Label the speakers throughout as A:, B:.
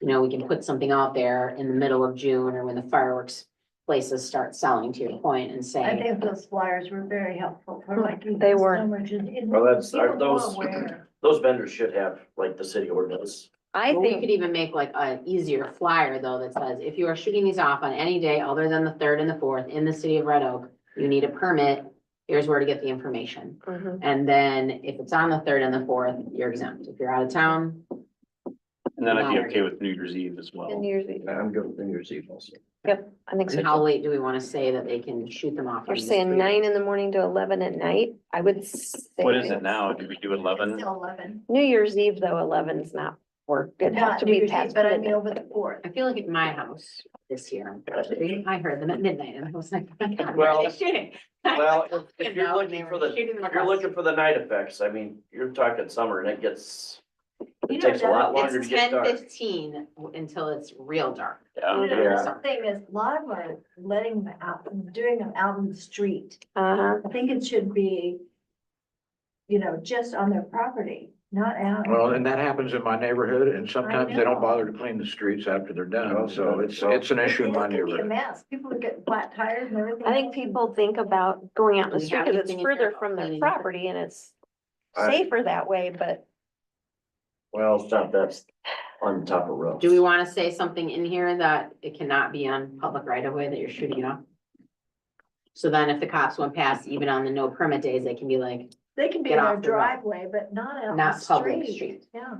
A: you know, we can put something out there in the middle of June or when the fireworks places start selling to your point and
B: I
A: say,
B: think those flyers were very helpful for like.
C: They were.
D: Well, that's- are those- Those vendors should have like the city ordinance.
C: I
A: Well, we could
C: think,
A: even make like an easier flyer though that says, if you are shooting these off on any day other than the third and the fourth in the city of Red Oak, you need a permit, here's where to get the information.
B: Mm-hmm.
C: Mhm.
A: And then if it's on the third and the fourth, you're exempt. If you're out of town,
E: And then I'd be okay with New Year's Eve as well.
C: New Year's Eve.
D: I'm good with New Year's Eve also.
C: I think so.
A: and how
C: too.
A: late do we want to say that they can shoot them off? on
C: You're
A: this
C: saying
A: freeway?
C: nine in the morning to eleven at night? I would say.
E: What is it now? Do we do eleven?
B: Eleven.
C: New Year's Eve, though, eleven's not work. It has
B: Not
C: to
B: New
C: be
B: Year's Eve,
C: past
B: but I mean
C: midnight.
B: over the fourth.
A: I feel like at my house this year, I heard them at midnight and I was like, oh my God, where
D: Well-
A: are they shooting?
D: Well, if- if
A: You
D: you're
A: know,
D: looking
A: they
D: for
A: were
D: the,
A: shooting them
D: if you're
A: across-
D: looking for the night effects, I mean, you're talking summer and it gets,
B: You
D: it
B: know,
D: takes a lot
B: another-
D: longer to
A: It's
D: get
A: ten
D: dark.
A: fifteen until it's real dark.
E: Yeah.
B: you know,
D: Yeah.
B: another Thing is, a lot of them are letting them out, doing them out in the street.
C: Uh-huh.
B: I think it should be, you know, just on their property, not out.
F: Well, and that happens in my neighborhood and sometimes they
B: know.
F: don't bother to clean the streets after they're
D: No,
F: done. So
D: no,
F: it's,
D: no.
F: it's an issue in
B: It's
F: my
B: gonna be a
F: neighborhood.
B: mess. People would get flat tires and everything.
C: I think people think about going out in the
A: Do we
C: street
A: have
C: because
A: anything in
C: it's
A: there
C: further
A: about
C: from their
A: cleaning up?
C: property and it's
D: I-
C: safer that way, but
D: Well, it's not that on top of roofs.
A: Do we want to say something in here that it cannot be on public right of way that you're shooting it off? So then if the cops went past, even on the no permit days, they can be like,
B: They can be in
A: Get
B: their
A: off the road.
B: driveway, but not out in the
A: Not public
B: street.
A: street.
B: Yeah,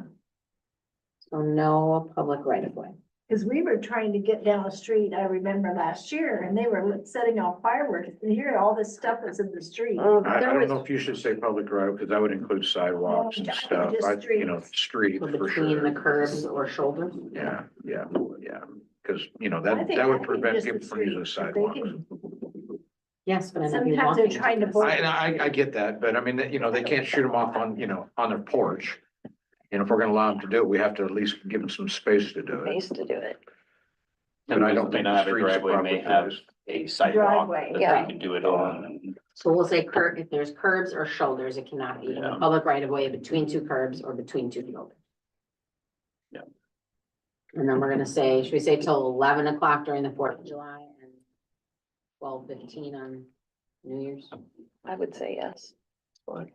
A: so "Oh, no public right of way.
B: because we were trying to get down a street, I remember last year, and they were setting off fireworks. And here, all this stuff is in the street.
C: mm,
F: I, I
C: there
F: don't know
C: was,
F: if you should say public road because that would include sidewalks and
B: No, just
F: stuff. I, you know,
B: streets.
F: streets
A: Or
F: for
A: Between the
F: sure.
A: curbs or shoulders.
F: Yeah, yeah, yeah. Because, you know,
B: I
F: that,
B: think-
F: that
B: I
F: would
B: think
F: prevent
B: just the
F: people from using
B: street, if they
F: sidewalks.
B: can-
A: Yes, but. I know you're
B: Sometimes they're
A: walking
B: trying to
A: this.
B: block
F: I, and I, I get that, but I mean, that, you know, they can't shoot them off on, you know, on their porch. And if we're gonna allow them to do it, we have to at least give them some space to do
C: they
F: it.
C: used to do it.
F: But I don't
E: May
F: think
E: not
F: the
E: have a
F: streets are
E: driveway,
F: properly
E: may have
F: placed.
E: a sidewalk
B: Driveway,
E: that
C: yeah.
E: they can do it on.
A: So we'll say cur, if there's curbs or shoulders, it cannot be in the
E: Yeah.
A: public right of way between two curbs or between two buildings.
E: Yeah.
A: And then we're gonna say, should we say till eleven o'clock during the Fourth of July and twelve fifteen on New Year's?
C: I would say yes.
E: Fine.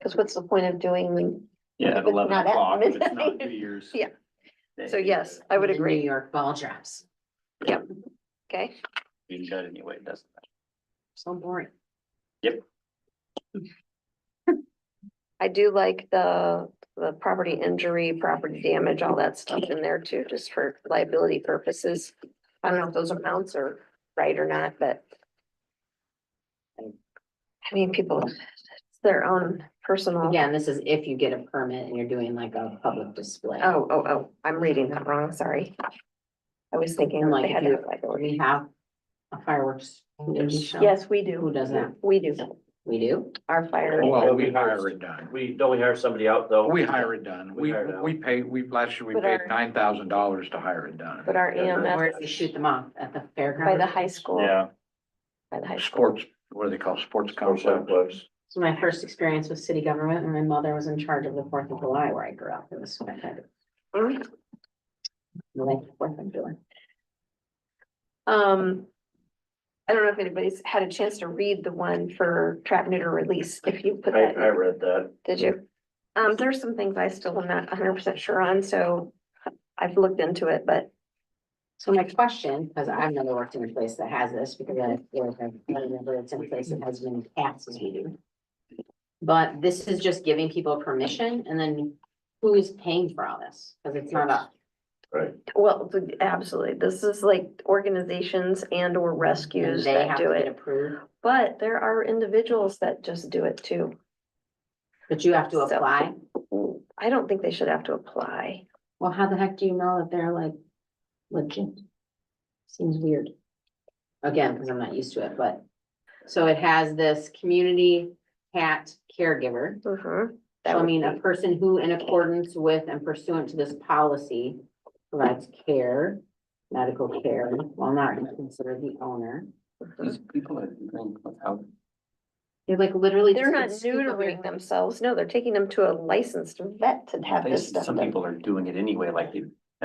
C: Because what's the point of doing them?
E: Yeah, at
C: If it's
E: eleven
C: not at
E: o'clock, if it's not
C: midnight.
E: New Year's.
C: Yeah.
E: Day.
C: So yes, I would
A: The New
C: agree.
A: York ball drops,
C: Okay.
E: Being shut anyway, it doesn't. matter.
A: so boring.
C: I do like the, the property injury, property damage, all that stuff in there too, just for liability purposes. I don't know if those amounts are right or not, but. I mean, people, it's their own personal.
A: Again, this is if you get a permit and you're doing like a public display.
C: Oh, oh, oh, I'm reading that wrong, sorry. I was thinking
A: And
C: they
A: like, if
C: had to
A: you,
C: have liability.
A: we have a fireworks. show.
C: Yes, we
A: Who
C: do.
A: does that?
C: We do.
A: We do?
C: Our fire.
F: Well, we hire it done.
D: We, don't we hire somebody out though?
F: We hire it done.
D: We
F: We,
D: hire it out.
F: we pay, we, last year we
C: But
F: paid
C: our-
F: nine thousand dollars to hire it
C: But
F: done.
C: our
A: Where do we
C: EMS
A: shoot them off? At the
C: by
A: fairground?
C: the high school.
E: Yeah,
C: By the high school.
F: Sports, what do they call it? sports
D: Or
F: complex?
D: someplace.
A: It's my first experience with city government and my mother was in charge of the Fourth of July where I grew up. It was fantastic.
C: Mm.
A: I like the Fourth of July.
C: Um. I don't know if anybody's had a chance to read the one for trap neuter release, if you put
D: I,
C: that,
D: I
C: in,
D: read that.
C: did you? Um, there's some things I still am not hundred percent sure on, so I've looked into it, but
A: So my question, because I've never worked in a place that has this, because I feel like I've never never worked in a place that has as many cats as we do. But this is just giving people permission and then who is paying for all this? Because it's not us.
C: well, th- absolutely, this is like organizations and or
A: And
C: rescues
A: They
C: that
A: have
C: do
A: to get
C: it.
A: approved,
C: But there are individuals that just do it too.
A: but you have to
C: So-
A: apply.
C: I don't think they should have to apply.
A: Well, how the heck do you know that they're like legit? Seems weird. Again, because I'm not used to it, but, so it has this community cat caregiver.
C: Mhm. That
A: So I
C: would
A: mean, a
C: be-
A: person who in accordance with and pursuant to this policy provides care, medical care, while not considered the owner.
C: Mm-hmm.
E: these people that drink without.
A: You're like literally.
C: They're not
A: just a scoop of your-
C: neutering themselves, no, they're taking them to a licensed vet to have
E: They-
C: this stuff
E: Some
C: done.
E: people are doing it anyway, like they